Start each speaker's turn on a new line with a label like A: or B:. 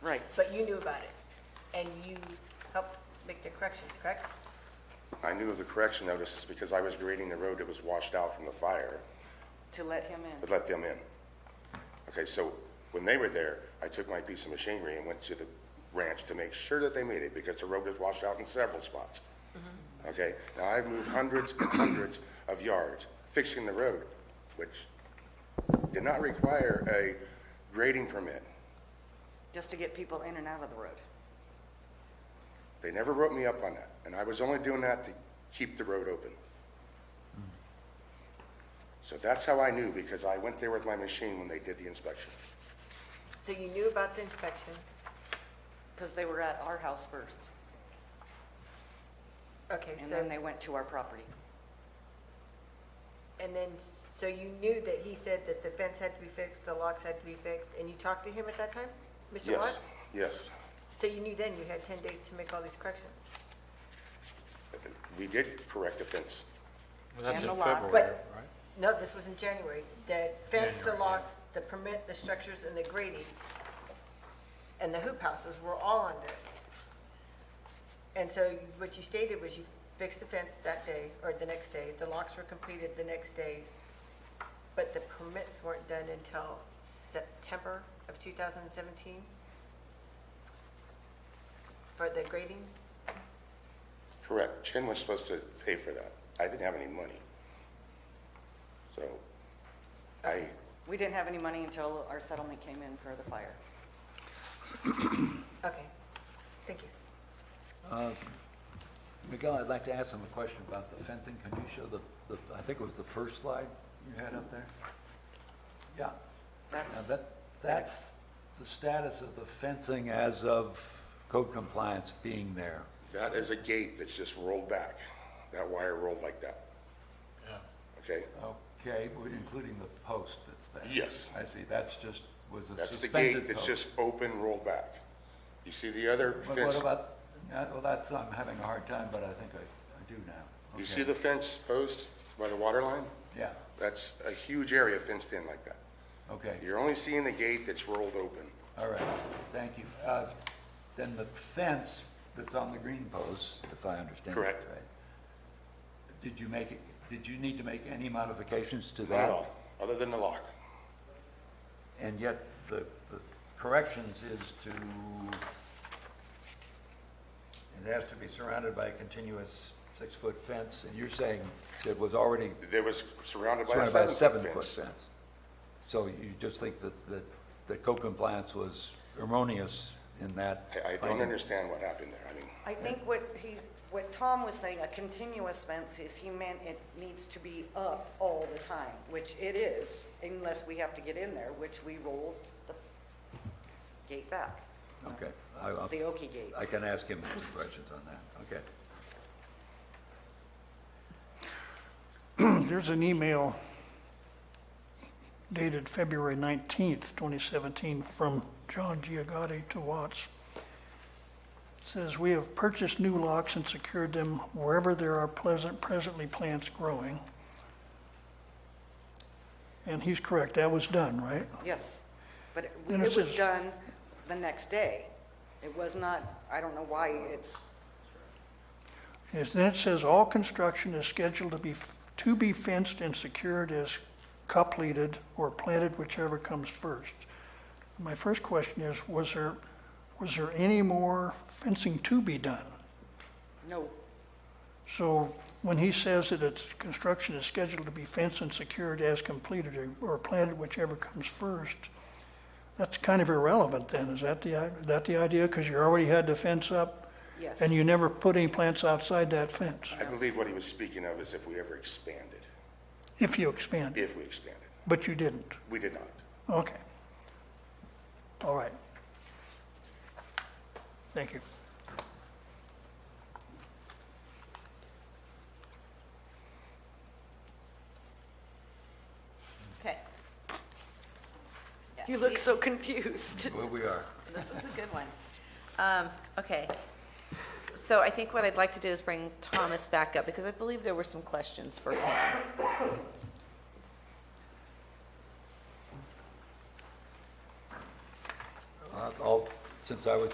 A: But you knew about it, and you helped make the corrections, correct?
B: I knew of the correction notices because I was grading the road that was washed out from the fire
C: to let him in.
B: to let them in. Okay, so when they were there, I took my piece of machinery and went to the ranch to make sure that they made it because the road was washed out in several spots. Okay, now I've moved hundreds and hundreds of yards fixing the road, which did not require a grading permit.
C: just to get people in and out of the road.
B: They never wrote me up on that, and I was only doing that to keep the road open. So that's how I knew, because I went there with my machine when they did the inspection.
A: So you knew about the inspection,
C: Because they were at our house first,
A: okay,
C: and
A: so,
C: then they went to our property.
A: and then, so you knew that he said that the fence had to be fixed, the locks had to be fixed, and you talked to him at that time? Mr.
B: Yes,
A: Watts?
B: yes.
A: So you knew then you had 10 days to make all these corrections?
B: We did correct the fence.
D: Well, that's
C: And
D: in
C: the lock.
D: February, right?
A: But- No, this was in January, the fence, the locks, the permit, the structures, and the grading, and the hoop houses were all on this. And so what you stated was you fixed the fence that day, or the next day, the locks were completed the next days, but the permits weren't done until September of 2017? For the grading?
B: Correct. Chin was supposed to pay for that. I didn't have any money. So I,
C: We didn't have any money until our settlement came in for the fire.
A: Okay, thank you.
E: Miguel, I'd like to ask him a question about the fencing. Can you show the, the, I think it was the first slide you had up there? Yeah. Now
C: That's,
E: that, that's the status of the fencing as of code compliance being there.
B: that is a gate that's just rolled back. That wire rolled like that. Okay?
E: Okay, well, including the post that's there.
B: Yes.
E: I see, that's just, was a
B: That's the
E: suspended
B: gate
E: post.
B: that's just open, rolled back. You see the other
E: But what
B: fence?
E: about, uh, well, that's, I'm having a hard time, but I think I, I do now.
B: You
E: Okay.
B: see the fence post by the water line?
E: Yeah,
B: That's a huge area fenced in like that.
E: okay.
B: You're only seeing the gate that's rolled open.
E: All right, thank you. Uh, Then the fence that's on the green post, if I understand it right?
B: Correct.
E: Did you make, it? did you need to make any modifications to that?
B: Not at all, other than the lock.
E: And yet, the the corrections is to, it has to be surrounded by a continuous six-foot fence, and you're saying it was already
B: It was surrounded by a
E: surrounded by a
B: seven-foot
E: seven-foot
B: fence.
E: fence. So you just think that, that, that code compliance was erroneous in that?
B: I, I don't
E: finding?
B: understand what happened there. I mean,
C: I think what he, what Tom was saying, a continuous fence, is he meant it needs to be up all the time, which it is, unless we have to get in there, which we roll the gate back,
E: Okay, I, I'll-
C: the Oki gate.
E: I can ask him some questions on that, okay.
F: There's an email dated February 19th, 2017, from John Giagotti to Watts. It Says, "We have purchased new locks and secured them wherever there are pleasant, presently plants growing." And he's correct, that was done, right?
C: Yes, but it-
F: And it
C: it was
F: says-
C: done the next day. It was not, I don't know why it's
F: Yes, then it says, "All construction is scheduled to be, to be fenced and secured as completed or planted, whichever comes first." My first question is, was there, was there any more fencing to be done?
C: no
F: So when he says that it's, construction is scheduled to be fenced and secured as completed or- or planted, whichever comes first, that's kind of irrelevant then, is that the, i- that the idea? Because you already had the fence up
C: Yes.
F: and you never put any plants outside that fence,
B: I believe what he was speaking of is if we ever expanded,
F: if you expand.
B: if we expanded.
F: But you didn't?
B: We did not.
F: Okay. All right. Thank you.
G: Okay.
C: You look so confused.
E: Well, we are.
G: This is a good one. Um, Okay. So I think what I'd like to do is bring Thomas back up, because I believe there were some questions for him.
E: Uh, I'll since I was